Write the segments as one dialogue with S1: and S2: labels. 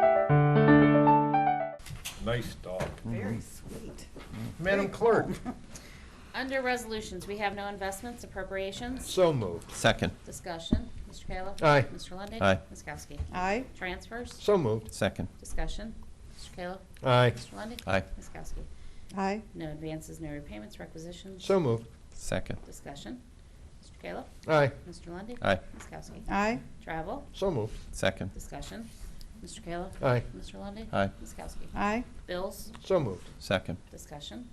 S1: county Mm-hmm. clerk.
S2: Under resolutions, we have no investments, appropriations,
S1: So moved.
S3: Second.
S2: discussion. Mr. Kayla?
S1: Aye.
S2: Mr. Lundey?
S3: Aye.
S2: Ms. Kowski?
S4: Aye.
S2: Transfers,
S1: So moved.
S3: Second.
S2: discussion. Mr. Kayla?
S1: Aye.
S2: Mr. Lundey?
S3: Aye.
S2: Ms. Kowski?
S4: Aye.
S2: No advances, no repayments, requisitions,
S1: So moved.
S3: Second.
S2: discussion. Mr. Kayla?
S1: Aye.
S2: Mr. Lundey?
S3: Aye.
S2: Ms. Kowski?
S4: Aye.
S2: Travel,
S1: So moved.
S3: Second.
S2: discussion. Mr. Kayla?
S1: Aye.
S2: Mr. Lundey?
S3: Aye.
S2: Ms. Kowski?
S4: Aye.
S2: Bills,
S1: So moved.
S3: Second.
S2: discussion.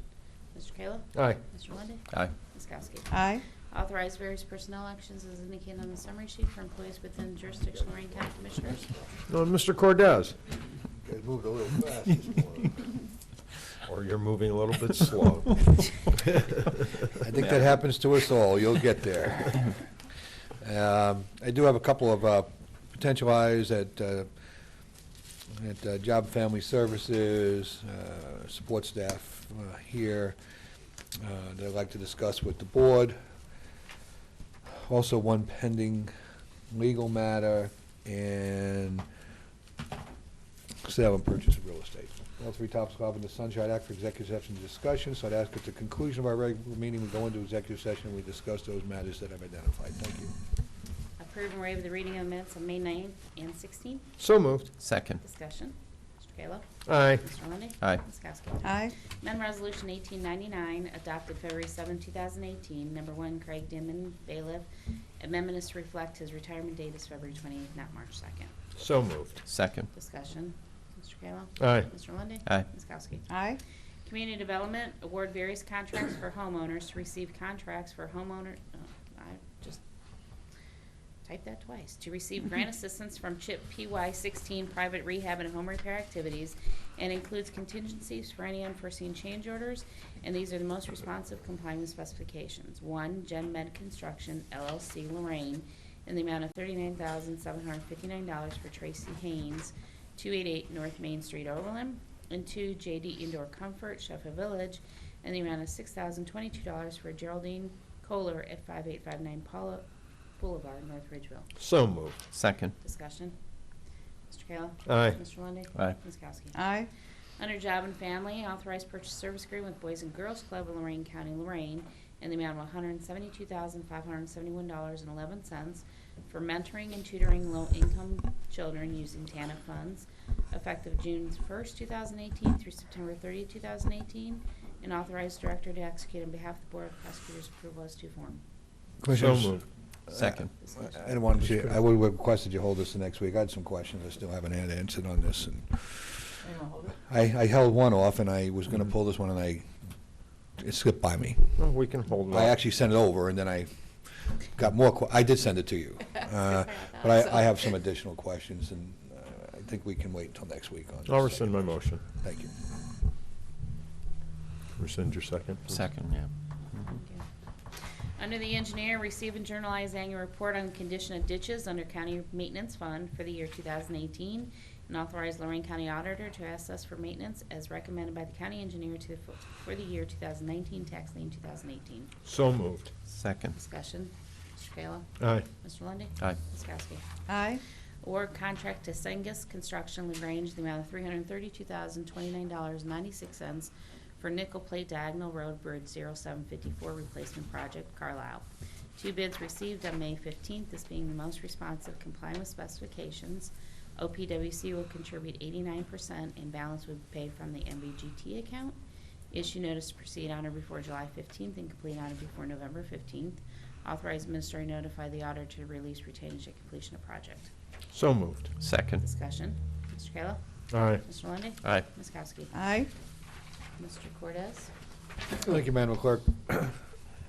S2: Mr. Kayla?
S1: Aye.
S2: Mr. Lundey?
S3: Aye.
S2: Ms. Kowski?
S4: Aye.
S2: Authorize various personnel actions as indicated on the summary sheet for employees within jurisdiction of Lorraine County Commissioners.
S1: No, Mr. Cordez?
S5: It moved a little fast this morning.
S1: Or you're moving a little bit slow.
S5: I think that happens to us all, you'll get there. Um, I do have a couple of uh, potential hires at, uh, at uh, Job and Family Services, uh, support staff uh, here, uh, that I'd like to discuss with the board. Also, one pending legal matter, and sale and purchase of real estate. All three topics involved in the Sunshine Act for executive session discussion, so I'd ask at the conclusion of our regular meeting, we go into executive session, and we discuss those matters that I've identified. Thank you.
S2: Approve and waive the reading of minutes of May 9th and 16th.
S1: So moved.
S3: Second.
S2: Discussion. Mr. Kayla?
S1: Aye.
S2: Mr. Lundey?
S3: Aye.
S2: Ms. Kowski?
S4: Aye.
S2: Amendment Resolution 1899, adopted February 7, 2018. Number one, Craig Dimon, bailiff. Amendment is to reflect his retirement date is February 28th, not March 2nd.
S1: So moved.
S3: Second.
S2: Discussion. Mr. Kayla?
S1: Aye.
S2: Mr. Lundey?
S3: Aye.
S2: Ms. Kowski?
S4: Aye.
S2: Community Development, award various contracts for homeowners to receive contracts for homeowner, oh, I just typed that twice, to receive grant assistance from CHIP PY sixteen private rehab and home repair activities, and includes contingencies for any unforeseen change orders, and these are the most responsive complying with specifications. One, Gen Med Construction LLC Lorraine, in the amount of thirty-nine thousand, seven hundred fifty-nine dollars for Tracy Haynes, 288 North Main Street, Overland, and two JD Indoor Comfort, Sheffield Village, and the amount of $6,022 for Geraldine Kohler at 5859 Paula Boulevard, North Ridgeville.
S1: So moved.
S3: Second.
S2: Discussion. Mr. Kayla?
S1: Aye.
S2: Mr. Lundey?
S3: Aye.
S2: Ms. Kowski?
S4: Aye.
S2: Under Job and Family, authorized purchase service agreement with Boys and Girls Club of Lorraine County, Lorraine, in the amount of $172,571.11 for mentoring and tutoring low-income children using TANF funds, effective June 1st, 2018 through September 30th, 2018, and authorized director to execute on behalf of the Board of Prosecutors' approval as to form.
S1: So
S5: Commissioners,
S1: moved.
S2: Uh,
S3: Second.
S2: Discussion.
S5: I wanted you, I would request that you hold this the next week. I had some questions. I still haven't had an answer on this. and I, I held one off and I was gonna pull this one and I, it slipped by me.
S1: Well, we can hold on.
S5: I actually sent it over, and then I got more, que- I did send it to you. Uh, But I, I have some additional questions, and uh, I think we can wait until next week on this.
S1: I'll rescind my motion.
S5: Thank you.
S1: Rescind your second. please.
S3: Second, yeah.
S2: Thank you. Under the engineer, receive and journalize annual report on condition of ditches under county maintenance fund for the year 2018, and authorize Lorraine County Auditor to assess for maintenance as recommended by the county engineer to, the fu- for the year 2019, tax lien 2018.
S1: So moved.
S3: Second.
S2: Discussion, Mr. Kayla?
S1: Aye.
S2: Mr. Lundey?
S3: Aye.
S2: Ms. Kowski?
S4: Aye.
S2: Award contract to Sengus Construction LaGrange, in the amount of three hundred thirty-two thousand, twenty-nine dollars, ninety-six cents for nickel plate diagonal road bridge zero seven fifty-four replacement project, Carlisle. Two bids received on May fifteenth, this being the most responsive complying with specifications. OPWC will contribute eighty-nine percent and balance will be paid from the MVGT account. Issue notice to proceed on or before July 15th and complete on or before November 15th. Authorize minister to notify the auditor to release retainage at completion of project.
S1: So moved.
S3: Second. Uh,
S2: Discussion. Mr. Kayla?
S1: Aye.
S2: Mr. Lundey?
S3: Aye.
S2: Ms. Kowski?
S4: Aye.
S2: Mr. Cortez?
S5: Thank you, Madam Clerk.